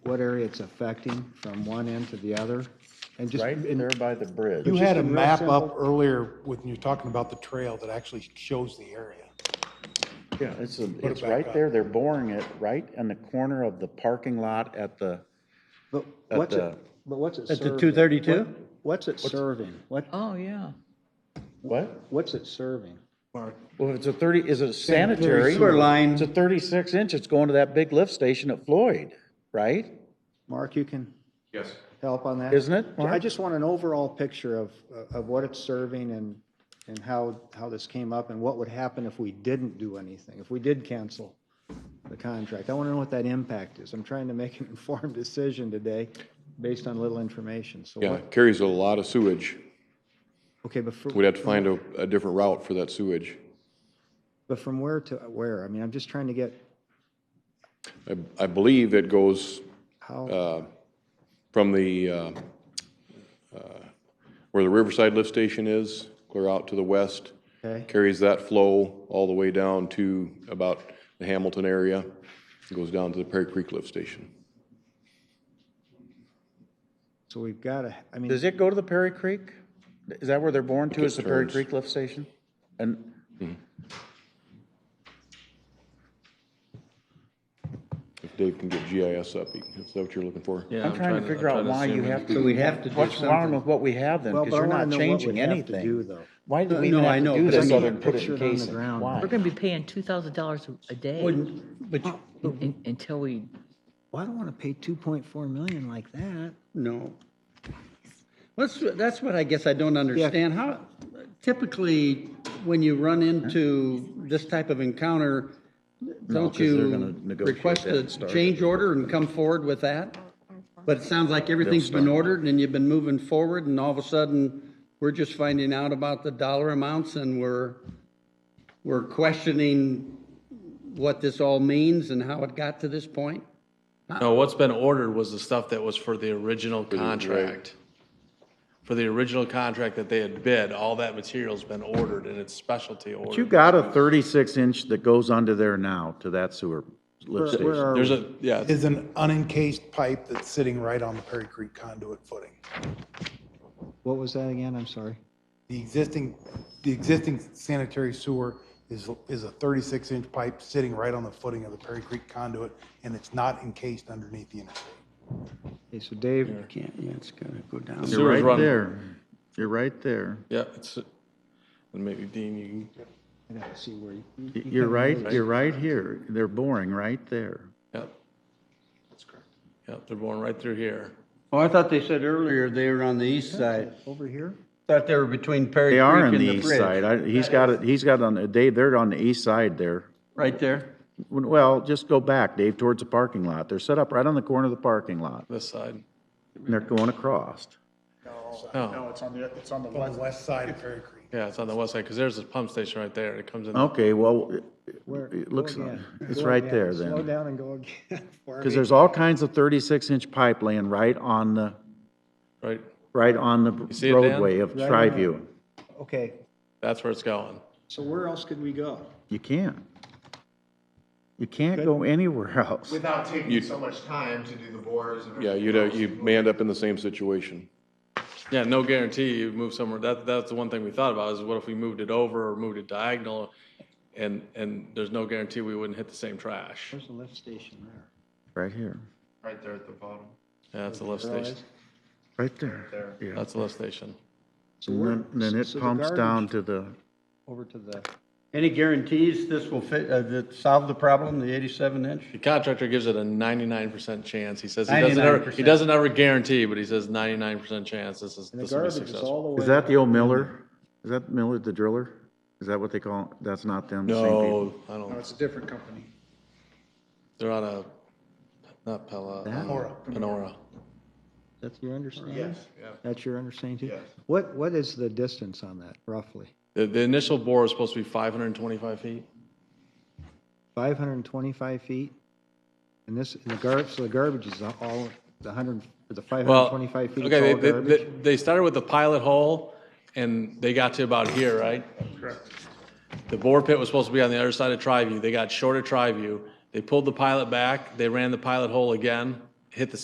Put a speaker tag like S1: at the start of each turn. S1: it's affecting from one end to the other? And just,
S2: Right
S1: and
S2: there by the bridge.
S3: You had a
S1: real
S3: map up
S1: simple-
S3: earlier when you were talking about the trail that actually shows the area.
S2: Yeah, it's, a-
S3: it
S2: it's
S3: back
S2: right
S3: up.
S2: there. They're boring it right in the corner of the parking lot at the,
S1: but
S2: At
S1: what's it,
S2: the-
S1: but what's it
S4: At the
S1: serving?
S4: 232?
S1: What- What's it serving? What,
S4: Oh, yeah.
S2: what?
S1: what's it serving?
S3: Mark,
S2: Well, it's a 30, is it sanitary?
S4: Sewer line.
S2: It's a 36 inch. It's going to that big lift station at Floyd, right?
S1: Mark, you can
S5: Yes.
S1: help on that?
S2: Isn't it,
S1: I
S2: Mark?
S1: just want an overall picture of, of what it's serving and, and how, how this came up and what would happen if we didn't do anything, if we did cancel the contract. I want to know what that impact is. I'm trying to make an informed decision today based on little information. So
S5: Yeah,
S1: what,
S5: it carries a lot of sewage.
S1: okay, but
S5: We'd
S1: from,
S5: have to find a, a different route for that sewage.
S1: but from where to where? I mean, I'm just trying to get
S5: I, I believe it goes
S2: Uh,
S1: how,
S5: from the, uh, uh, where the Riverside Lift Station is, clear out to the west.
S1: Okay.
S5: Carries that flow all the way down to about the Hamilton area. Goes down to the Perry Creek Lift Station.
S1: so we've got to, I mean,
S2: Does it go to the Perry Creek? Is that where they're born to,
S5: it
S2: is the Perry
S5: turns.
S2: Creek lift station? And
S5: If Dave can get GIS up, he- is that what you're looking for?
S2: I'm trying to figure out why you have to.
S4: So we'd have to do
S2: What's wrong
S4: something.
S2: with what we have then?
S1: well, but
S2: Because
S1: I
S2: you're
S1: want
S2: not
S1: to know what
S2: changing
S1: we have to do
S2: anything.
S1: though.
S2: Why do
S4: No,
S2: we even
S4: no,
S2: have
S4: I know,
S2: to do
S4: because I
S2: this
S4: can't
S2: other than put it
S1: picture
S2: in
S1: it on the
S2: casing?
S1: ground.
S2: Why?
S1: We're
S6: We're gonna be paying two thousand dollars a day
S4: But, you-
S6: un- until we,
S1: Well, I don't want to pay 2.4 million like that.
S4: no. That's, that's what I guess I don't understand. How, typically, when you run into this type of encounter, don't
S2: 'cause they're
S4: you
S2: gonna negotiate
S4: request
S2: that
S4: a
S2: and start it.
S4: change order and come forward with that? But it sounds like everything's been ordered and you've been moving forward and all of a sudden, we're just finding out about the dollar amounts and we're, we're questioning what this all means and how it got to this point?
S7: No, what's been ordered was the stuff that was for the original contract. For the original contract that they had bid, all that material's been ordered and it's specialty ordered.
S2: You got a 36 inch that goes under there now to that sewer lift
S1: Where- where
S2: station.
S1: are
S7: There's a, yeah,
S3: is an unencased pipe that's sitting right on the Perry Creek conduit footing.
S1: What was that again? I'm sorry.
S3: The existing, the existing sanitary sewer is, is a 36-inch pipe sitting right on the footing of the Perry Creek conduit, and it's not encased underneath the interstate.
S1: Okay, so Dave,
S4: Can't, yeah, it's gonna go down.
S7: Sewer's
S2: You're right
S7: run-
S2: there. You're right there.
S7: yeah, it's, and maybe Dean, you can
S1: I gotta see where you.
S2: Y- You're right, you're right here. They're boring right there.
S7: Yep. That's correct. Yep, they're going right through here.
S4: Oh, I thought they said earlier they were on the east side.
S1: Over here?
S4: Thought they were between Perry
S2: They are
S4: Creek
S2: on
S4: and
S2: the
S4: the
S2: east side.
S4: bridge.
S2: I- He's got it, he's got on, Dave, they're on the east side there.
S4: Right there?
S2: Well, just go back, Dave, towards the parking lot. They're set up right on the corner of the parking lot,
S7: This side.
S2: and they're going across.
S7: No,
S8: it's on the, it's on the
S3: On the west side of Perry Creek.
S7: yeah, it's on the west side because there's a pump station right there. It comes in.
S2: Okay, well, it-
S1: Where?
S2: it
S1: go
S2: looks,
S1: again.
S2: it's
S1: Go
S2: right
S1: again.
S2: there
S1: Slow
S2: then.
S1: down and go again. for
S2: Because
S1: me.
S2: there's all kinds of 36-inch pipe laying right on the,
S7: Right,
S2: right on the
S7: see it, Dan?
S2: roadway of
S1: Right
S2: Triview.
S1: Okay,
S7: that's where it's going.
S1: so where else could we go?
S2: You can't. You can't go anywhere else.
S8: Without taking so much time to do the bores and.
S5: Yeah, you'd, uh, you may end up in the same situation.
S7: Yeah, no guarantee you move somewhere. That, that's the one thing we thought about is what if we moved it over or moved it diagonal? And, and there's no guarantee we wouldn't hit the same trash.
S1: There's a lift station there.
S2: Right here,
S8: Right there at the bottom.
S7: Yeah, that's the lift station.
S2: right there. Yeah.
S7: That's the lift station.
S1: So
S2: And
S1: where?
S2: then- then it
S1: so the
S2: pumps
S1: garbage
S2: down to the,
S1: Over to the,
S4: Any guarantees this will fit, uh, that solve the problem, the eighty-seven inch?
S7: The contractor gives it a ninety-nine percent chance. He says he doesn't ever, he
S4: 99%.
S7: doesn't ever guarantee, but he says ninety-nine percent chance this is,
S1: and the
S7: this will be
S1: garbage is
S7: successful.
S1: all the way.
S2: is that the old Miller? Is that Miller the driller? Is that what they call, it? that's not them, the same people?
S7: No, I don't,
S8: It's a different company.
S7: they're on a, not Pella, uh, Panora.
S1: That's your understanding?
S8: Yes, yeah.
S1: That's your understanding too?
S8: Yes.
S1: What, what is the distance on that roughly?
S7: The, the initial bore is supposed to be five hundred and twenty-five feet.
S1: 525 feet? And this, and the garbage, so the garbage is all, the 100, the
S7: Well,
S1: 525 feet is
S7: okay,
S1: all
S7: they- they-
S1: garbage?
S7: They started with the pilot hole, and they got to about here, right? Correct. The bore pit was supposed to be on the other side of Triview. They got short of Triview. They pulled the pilot back, they ran the pilot hole again, hit the